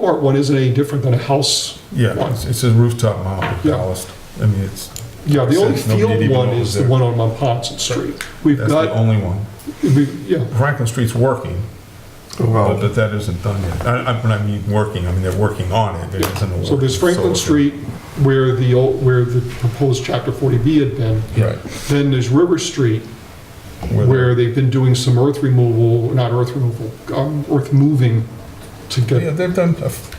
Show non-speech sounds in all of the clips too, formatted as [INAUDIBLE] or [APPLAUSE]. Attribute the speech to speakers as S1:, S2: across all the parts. S1: Or one isn't any different than a house
S2: Yeah,
S1: one.
S2: it's- it's a rooftop mount
S1: Yeah.
S2: ballast. I mean, it's,
S1: Yeah, the only
S2: Since nobody
S1: field
S2: even
S1: one
S2: knows
S1: is the
S2: there.
S1: one on Monpont Street. We've
S2: that's the
S1: got,
S2: only one.
S1: we, yeah,
S2: Franklin Street's working,
S1: Oh.
S2: but
S3: Well,
S2: but that isn't done yet. I, I, when I mean working, I mean, they're working on it, there isn't a work.
S1: so there's Franklin Street where the old, where the proposed chapter 40B had been.
S2: Right.
S1: Then there's River Street where they've been doing some earth removal, not earth removal, um, earth moving to
S2: Yeah,
S1: get,
S2: they've done a f-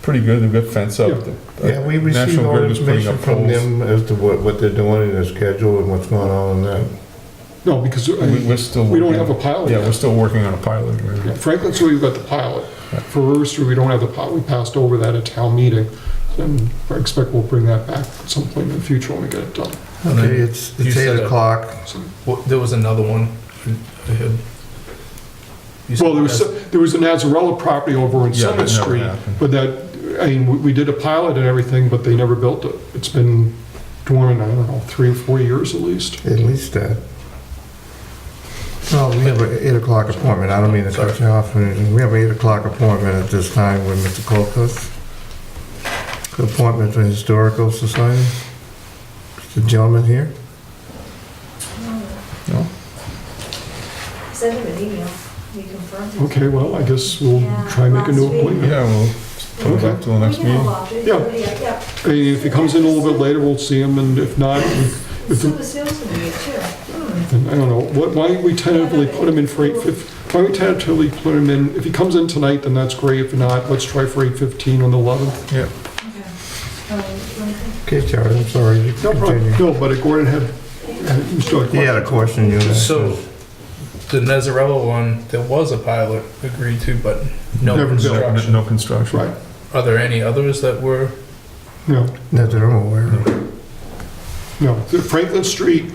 S2: pretty good, they've got fence up.
S1: Yeah.
S2: The-
S3: yeah, we received
S2: uh, National
S3: all
S2: Grid was putting
S3: information
S2: up
S3: from
S2: poles.
S3: them as to what, what they're doing and their schedule and what's going on and that.
S1: no, because I
S2: We-
S1: mean,
S2: We're still.
S1: we don't
S2: working-
S1: have a pilot
S2: Yeah,
S1: yet.
S2: we're still working on a pilot. right?
S1: Yeah, Franklin Street, we've got the pilot. For River Street, we don't have the pilot, we passed over that at town meeting. And I expect we'll bring that back at some point in the future when we get it done.
S4: And then
S3: Okay, it's,
S4: you
S3: it's
S4: said
S3: eight
S4: a-
S3: o'clock.
S1: So-
S4: Well, there was another one I had. you said
S1: Well, there was,
S4: that's-
S1: there was an Azarella property over on
S2: Yeah, that
S1: Summit
S2: never
S1: Street,
S2: happened.
S1: but that, I mean, we- we did a pilot and everything, but they never built it. It's been dormant, I don't know, three or four years at least.
S3: At least that. Well, we have an eight o'clock appointment, I don't mean to cut you off, we have an eight o'clock appointment at this time with Mr. Colcos. Appointment for Historical Society. The gentleman here,
S2: No?
S5: Send him an email, we confirmed it.
S1: Okay, well, I guess we'll try and make a new appointment.
S2: Yeah, we'll put it up till the next
S5: We can
S2: meeting.
S5: have a
S1: Yeah.
S5: walk, we- yeah.
S1: I mean, if he comes in a little bit later, we'll see him, and if not, we- if,
S5: So the salesman here too. Hmm.
S1: And I don't know, what, why don't we tentatively put him in for eight fif, why don't we tentatively put him in, if he comes in tonight, then that's great, if not, let's try for eight fifteen on the eleventh.
S2: Yeah,
S5: Okay. Um, okay.
S3: okay, Charlie, I'm sorry, you
S1: No problem,
S3: continue.
S1: no, but Gordon had, had- Mr.
S3: He had a question, you.
S4: So, the Nezarella one, there was a pilot agreed to, but no
S1: Never built.
S2: no,
S4: construction.
S2: no construction.
S1: Right,
S4: Are there any others that were?
S1: no,
S3: Not that I'm aware of.
S1: no, The Franklin Street,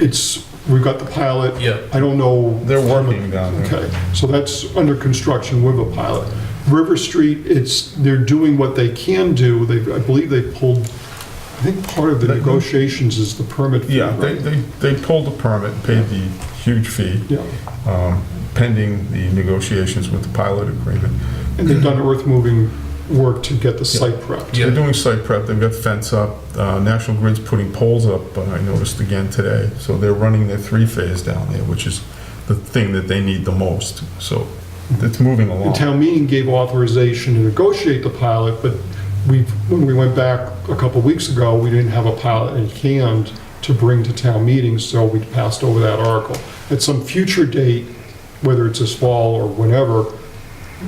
S1: it's, we've got the pilot,
S4: Yeah.
S1: I don't know.
S2: They're working down there.
S1: Okay, so that's under construction with a pilot. River Street, it's, they're doing what they can do, they, I believe they pulled, I think part of the
S2: They-
S1: negotiations is the permit fee,
S2: Yeah, they,
S1: right?
S2: they, they pulled the permit, paid the huge fee,
S1: Yeah.
S2: um, pending the negotiations with the pilot agreement.
S1: And they've done earth moving work to get the site prepped.
S4: Yeah.
S2: They're doing site prep, they've got fence up, uh, National Grid's putting poles up, but I noticed again today, so they're running their three-phase down there, which is the thing that they need the most, so it's moving
S1: The
S2: along.
S1: town meeting gave authorization to negotiate the pilot, but we, when we went back a couple of weeks ago, we didn't have a pilot in hand to bring to town meetings, so we passed over that article. At some future date, whether it's this fall or whenever,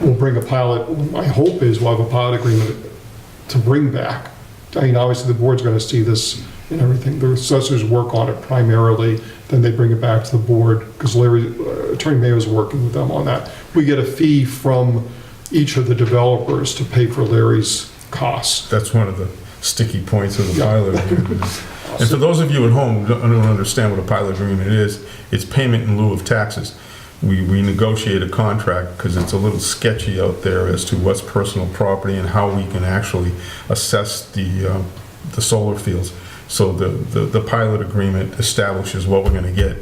S1: we'll bring a pilot, my hope is we'll have a pilot agreement to bring back. I mean, obviously, the board's gonna see this and everything, the assessors work on it primarily, then they bring it back to the board, because Larry, uh, Attorney Mayo's working with them on that. We get a fee from each of the developers to pay for Larry's costs.
S2: That's one of the sticky points of the
S1: Yeah.
S2: pilot
S1: [LAUGHS]
S2: agreement. And for those of you at home who don't don't understand what a pilot agreement is, it's payment in lieu of taxes. We, we negotiate a contract because it's a little sketchy out there as to what's personal property and how we can actually assess the, uh, the solar fields. So the, the, the pilot agreement establishes what we're going to get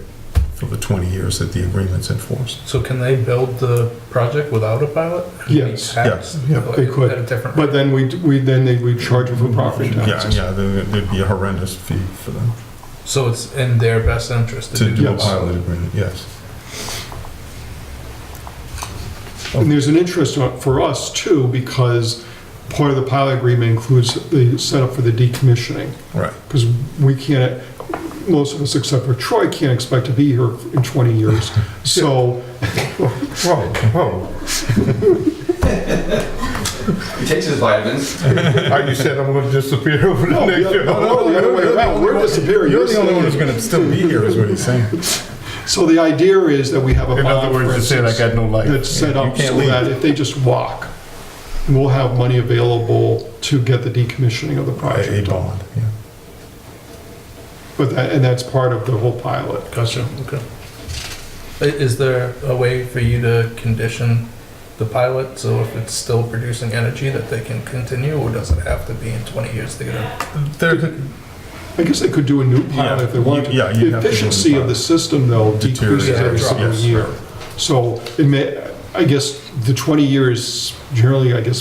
S2: for the 20 years that the agreement's in force.
S4: So can they build the project without a pilot?
S1: Yes.
S4: Tax?
S3: Yeah. Yeah,
S1: they could.
S4: At a different
S1: But
S4: rate?
S1: then we, we, then they, we charge them for property
S2: Yeah,
S1: taxes.
S2: yeah, there- there'd be a horrendous fee for them
S4: So it's in their best interest
S2: to
S4: to do
S2: do a
S1: Yes.
S4: this.
S2: pilot agreement, yes.
S1: And there's an interest on- for us too, because part of the pilot agreement includes the setup for the decommissioning.
S2: Right.
S1: because we can't, most of us except for Troy can't expect to be here in 20 years.
S2: [LAUGHS]
S1: So,
S3: Whoa, whoa,
S6: He takes his vitamins.
S3: I just said I'm gonna disappear over the
S1: no, the
S3: next
S1: other-
S3: year.
S1: no, no, the other way around, we're disappearing.
S2: You're the only one who's gonna still be here, is what he's saying.
S1: So the idea is that we have a
S3: In other
S1: bond, for
S3: words, it said I
S1: instance,
S3: got no life.
S1: that's set
S2: You
S1: up
S2: can't
S1: so
S2: leave.
S1: that if they just walk, we'll have money available to get the decommissioning of the
S2: A a
S1: project.
S2: bond, yeah.
S1: But that, and that's part of the whole pilot.
S4: Gotcha, okay. I- Is there a way for you to condition the pilot, so if it's still producing energy, that they can continue, or does it have to be in 20 years to get a...
S2: There,
S1: I guess they could do a new pilot if they wanted to.
S2: Yeah, you- yeah, you'd
S1: The
S2: have to do a new
S1: efficiency of the
S2: pilot.
S1: system, though, decreases every
S4: Deteriorates,
S1: single
S2: yes.
S1: year. So it may, I guess, the 20 years generally, I guess,